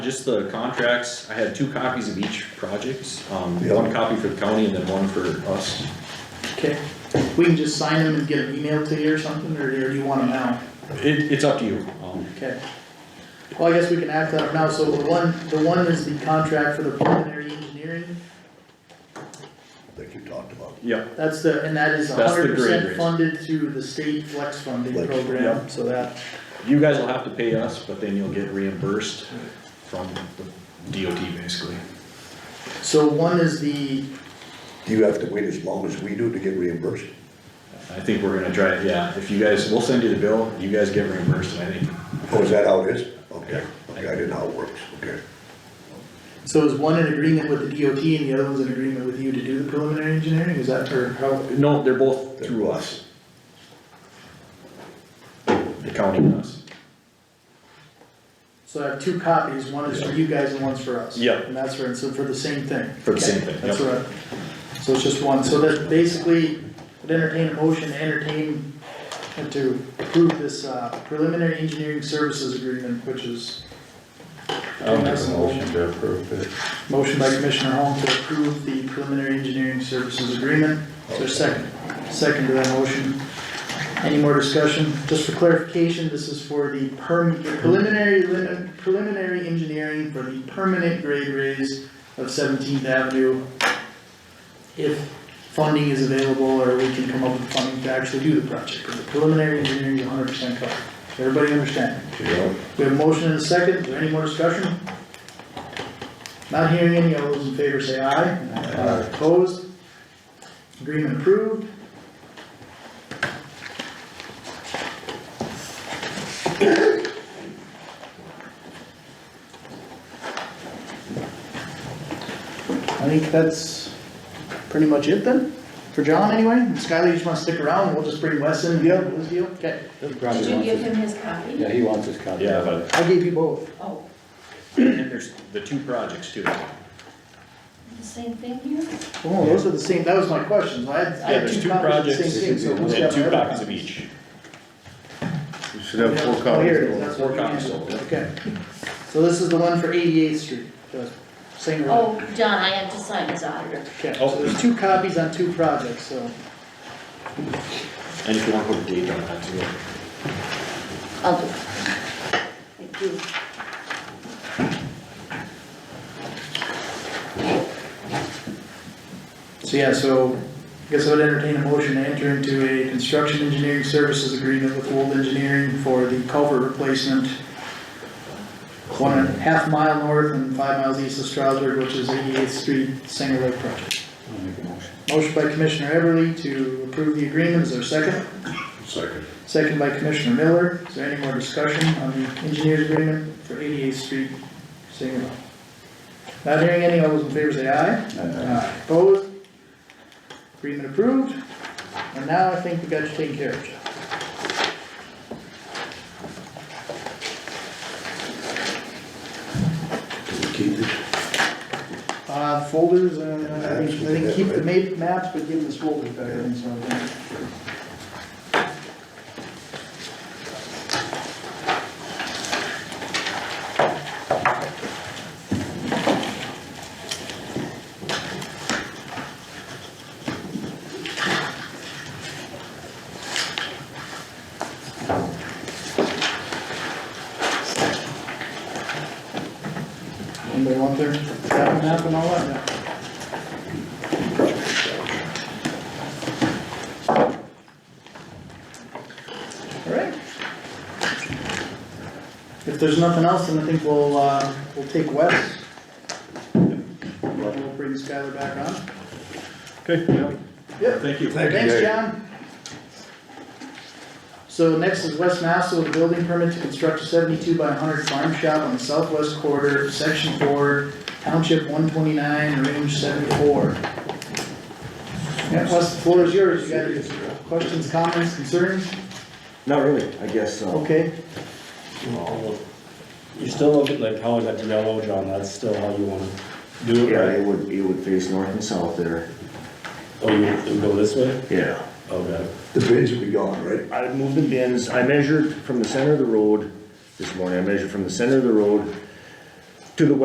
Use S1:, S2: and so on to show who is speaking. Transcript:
S1: Just the contracts, I had two copies of each project, um,
S2: Yeah.
S1: one copy for the county and then one for us.
S3: Okay, we can just sign them and get an email to you or something, or or do you want them now?
S1: It, it's up to you, um,
S3: Okay. Well, I guess we can act on it now, so the one, the one is the contract for the preliminary engineering,
S2: that you talked about.
S1: yeah,
S3: that's the, and that is
S1: That's the
S3: hundred
S1: grade
S3: percent
S1: raise.
S3: funded through the state flex funding
S2: Flex,
S3: program, so that,
S1: you guys will have to pay us, but then you'll get reimbursed from the DOT basically.
S3: so one is the,
S2: Do you have to wait as long as we do to get reimbursed?
S1: I think we're gonna try, it. yeah, if you guys, we'll send you the bill, you guys get reimbursed, and I think,
S2: Oh, is that how it is? Okay,
S1: Yeah.
S2: okay, I didn't know how it works, okay.
S3: so is one in agreement with the DOT and the other one's in agreement with you to do the preliminary engineering, is that for how?
S1: no, they're both through us. The county and us.
S3: So I have two copies, one is for you guys and one's for us.
S1: Yeah.
S3: And that's for, and so for the same thing.
S1: For the same thing,
S3: That's
S1: yeah.
S3: right. So it's just one, so that basically, would entertain a motion, to entertain, and to approve this uh, preliminary engineering services agreement, which is.
S4: I'll make a motion to approve it.
S3: Motion by Commissioner Holm to approve the preliminary engineering services agreement. Is there a second? Second to that motion. Any more discussion? Just for clarification, this is for the perm, the preliminary, lim- preliminary engineering for the permanent grade raise of Seventeenth Avenue. If funding is available, or we can come up with funding to actually do the project, because the preliminary engineering is hundred percent covered. Everybody understand?
S2: Yeah.
S3: We have a motion and a second, is there any more discussion? Not hearing any, all those in favor say aye. Aye. Opposed? Agreement approved. I think that's pretty much it then, for John anyway, And Skylar, you just wanna stick around, we'll just bring Wes in, yeah, this deal, okay,
S5: Did you give him his copy?
S4: Yeah, he wants his copy.
S1: Yeah, but,
S3: I gave you both.
S5: Oh,
S1: and there's the two projects too.
S5: the same thing here?
S3: Oh, those are the same, that was my question, I had, I
S1: Yeah,
S3: had
S1: there's
S3: two
S1: two
S3: copies
S1: projects,
S3: of the same thing, so who's
S1: and
S3: got
S1: two
S3: the other
S1: copies of
S3: copy?
S1: each.
S6: You should have four
S3: Oh,
S6: copies.
S3: here it is, that's
S1: Four
S3: what
S1: copies
S3: we need.
S1: total.
S3: Okay, so this is the one for eighty-eighth street, the same road.
S5: Oh, John, I have to sign as auditor.
S3: Okay,
S1: Oh.
S3: so there's two copies on two projects, so,
S1: And if you wanna put a date on that too.
S5: I'll do it. Thank you.
S3: so yeah, so, I guess I would entertain a motion to enter into a construction engineering services agreement with Wold Engineering for the culvert replacement. One and a half mile north and five miles east of Strasburg, which is eighty-eighth street, Singer Lake project.
S4: I'll make a motion.
S3: Motion by Commissioner Everly to approve the agreement, is there a second?
S2: Second.
S3: Second by Commissioner Miller, is there any more discussion on the engineer's agreement for 88th Street, Saginaw? Not hearing any, all those in favor say aye. Aye. Opposed? Agreement approved, and now I think we got you taken care of, Jeff.
S2: Keep it.
S3: Uh, folders, uh, I think, I think keep the ma- maps, but give them the folders back, I think, so. I think. Anybody want their, that map and all that? Alright. If there's nothing else, then I think we'll, uh, we'll take Wes. We'll bring Skylar back on.
S1: Okay.
S3: Yep.
S1: Thank you.
S3: Thanks, John. So next is West Massel with a building permit to construct a seventy-two by hundred farm shop on the southwest quarter, section four, township one twenty-nine, range seventy-four. Yeah, Wes, the floor is yours, you got any questions, comments, concerns?
S7: Not really, I guess, uh,
S3: Okay,
S8: You still look at like how I got to yellow, John, that's still how you wanna do it,
S7: yeah,
S8: right?
S7: it would, it would face north and south there,
S8: Or Oh, you, it would go this way?
S7: yeah.
S8: Okay.
S2: The bids will be gone, right?
S7: I moved the bins, I measured from the center of the road this morning, I measured from the center of the road